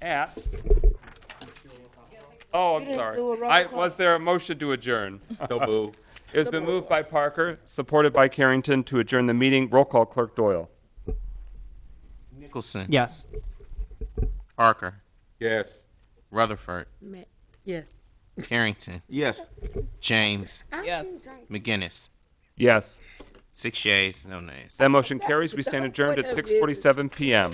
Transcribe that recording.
at, oh, I'm didn't sorry. do a roll I, call. was there a motion to adjourn? So boo. It's been moved by Parker, supported by Carrington to adjourn the meeting. Roll call, Clerk Doyle. Nicholson. Yes. Parker. Yes. Rutherford. Ma- Yes. Carrington. Yes. James. Yes. McGinnis. Yes, Six yeas, no nays. that motion carries. We stand adjourned at 6:47 PM.